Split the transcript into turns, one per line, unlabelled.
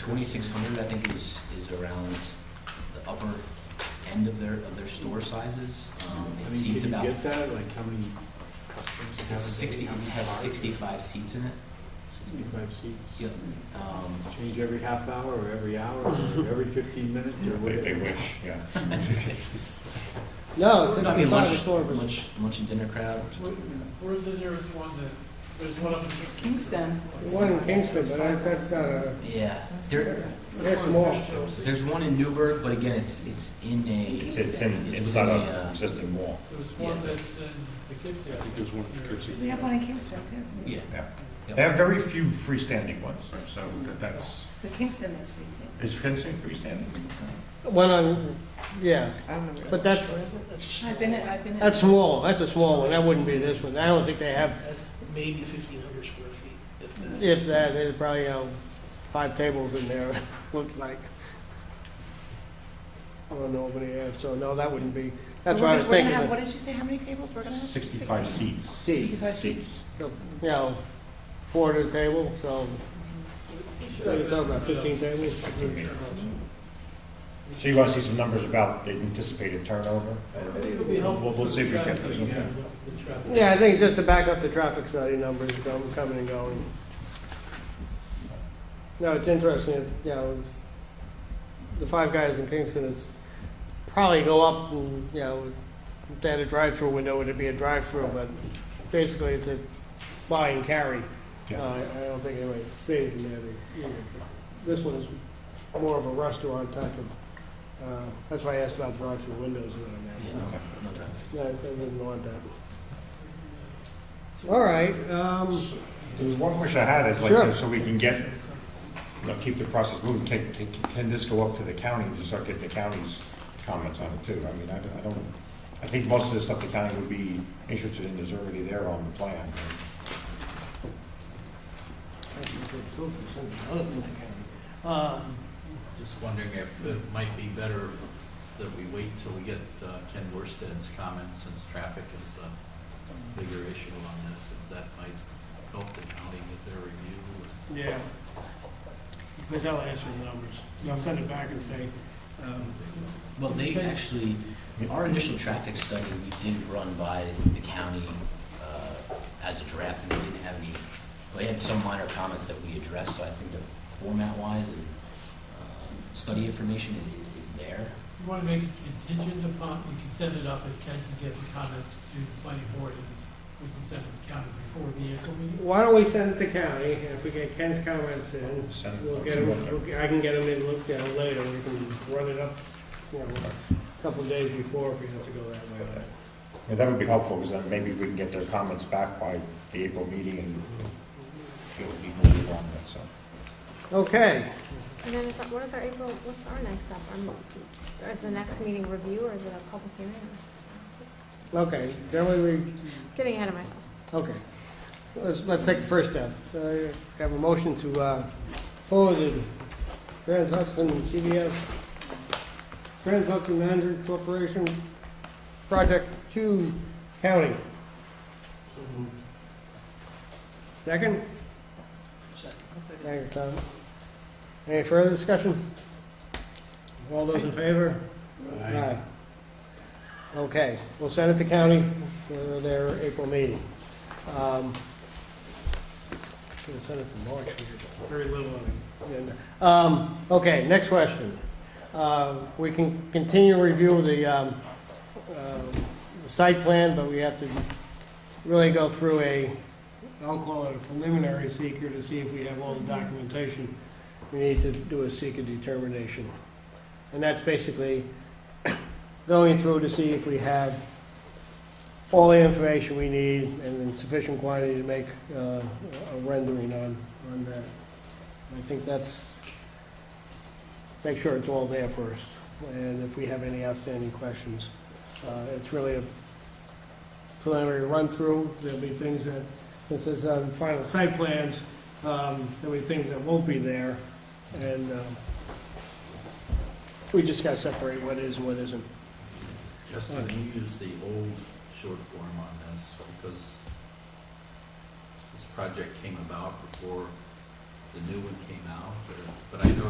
twenty-six hundred, I think, is, is around the upper end of their, of their store sizes. Um,
I
It
mean,
seats
can you
about,
get that, like how many customers you have? a day,
it's sixty,
how
it
many
has
cars?
sixty-five seats in it.
Sixty-five seats.
Yep. Um,
Change every half hour, or every hour, or every fifteen minutes, or
They, they
whatever.
wish, yeah.
No,
I
since
mean,
we thought it was
lunch-
store versus-
Lunch, lunch and dinner crowd.
Where's the nearest one that, there's one up in
Kingston.
the one in Kingston, but I- that's not a,
Yeah, there,
they're small.
there's one in Newburgh, but again, it's, it's in a,
It's, it's in, inside an existing wall.
There's
one
one
that's
that's in Poughkeepsie.
I think there's one in Poughkeepsie.
We have one in Kingston too.
yeah.
They have very few freestanding ones, so that- that's,
But Kingston is freestanding.
is fencing freestanding?
One on, yeah, but that's,
I've been in, I've been in.
that's small, that's a small one, that wouldn't be this one. I don't think they have,
maybe fifteen hundred square feet, if that.
if that, there's probably, you know, five tables in there, looks like. I don't know what they have, so no, that wouldn't be, that's what I was
We're gonna
thinking.
have, what
You
did you say, how many tables we're gonna have?
Sixty-five seats.
Seats.
Seats.
know, four to the table, so, you're talking
uh,
about fifteen tables.
Fifteen meters. So you want to see some numbers about the anticipated turnover?
I think it'll be helpful.
We'll, we'll see if we get those. okay.
Yeah, I think just to back up the traffic study numbers come- coming and going. No, it's interesting, it- you know, it's- the Five Guys in Kingston is probably go up, and, you know, if they had a drive-through window, it'd be a drive-through, but basically it's a buy and carry. Uh,
Yeah.
I I don't think anybody stays in there, they- you know, this one is more of a restaurant type of, uh, that's why I asked about drive-through windows and all that.
Yeah, no traffic.
No, I wouldn't want that. All right, um,
There's one question I had is
Sure.
like, so we can get, you know, keep the process moving, can, can, can this go up to the county and just start getting the county's comments on it too? I mean, I don't, I don't, I think most of the stuff the county would be interested in is already there on the plan.
Um,
Just wondering if it might be better that we wait till we get uh, Ken Worsted's comments, since traffic is a bigger issue on this, if that might help the county with their review.
yeah, because I'll ask for the numbers, and I'll send it back and say, um,
Well, they actually, our initial traffic study, we did run by the county uh, as a draft, and we didn't have any, we had some minor comments that we addressed, so I think that format-wise and um, study information i- is there.
You want to make it contingent upon, we can send it up if Ken can get the comments to the planning board, and we can send it to county before the April meeting.
why don't we send it to county, and if we get Ken's comments in,
Send-
we'll get them, we'll- I can get them in, look at them later, we can run it up, you know, a couple of days before if we have to go that way.
Yeah, that would be helpful, because then maybe we can get their comments back by the April meeting and it would be moving along that, so.
Okay,
And then is, that- what is our April, what's our next step? Our- Is the next meeting review or is it a public hearing?
okay, generally, we,
Getting ahead of myself.
okay, let's, let's take the first step. I Have a motion to, uh, forward the Trans Hudson CBS, Trans Hudson Management Corporation project to county. Second? Thank you, Tom. Any further discussion? All those in favor? Aye. Okay, we'll send it to county for their April meeting. Um, Should have sent it for March, we
very little on it.
did. Um, okay, next question. Uh, we can continue review the, um, uh, the site plan, but we have to really go through a, I'll call it a preliminary seeker to see if we have all the documentation. We need to do a seeker determination. And that's basically going through to see if we have all the information we need and in sufficient quantity to make uh, a rendering on, on that. I think that's, make sure it's all there first, and if we have any outstanding questions. Uh, It's really a preliminary run-through, there'll be things that, since this is on final site plans, um, there'll be things that won't be there, and um, we just gotta separate what is and what isn't.
Justin, you use the old short form on this because this project came about before the new one came out, or- but I noticed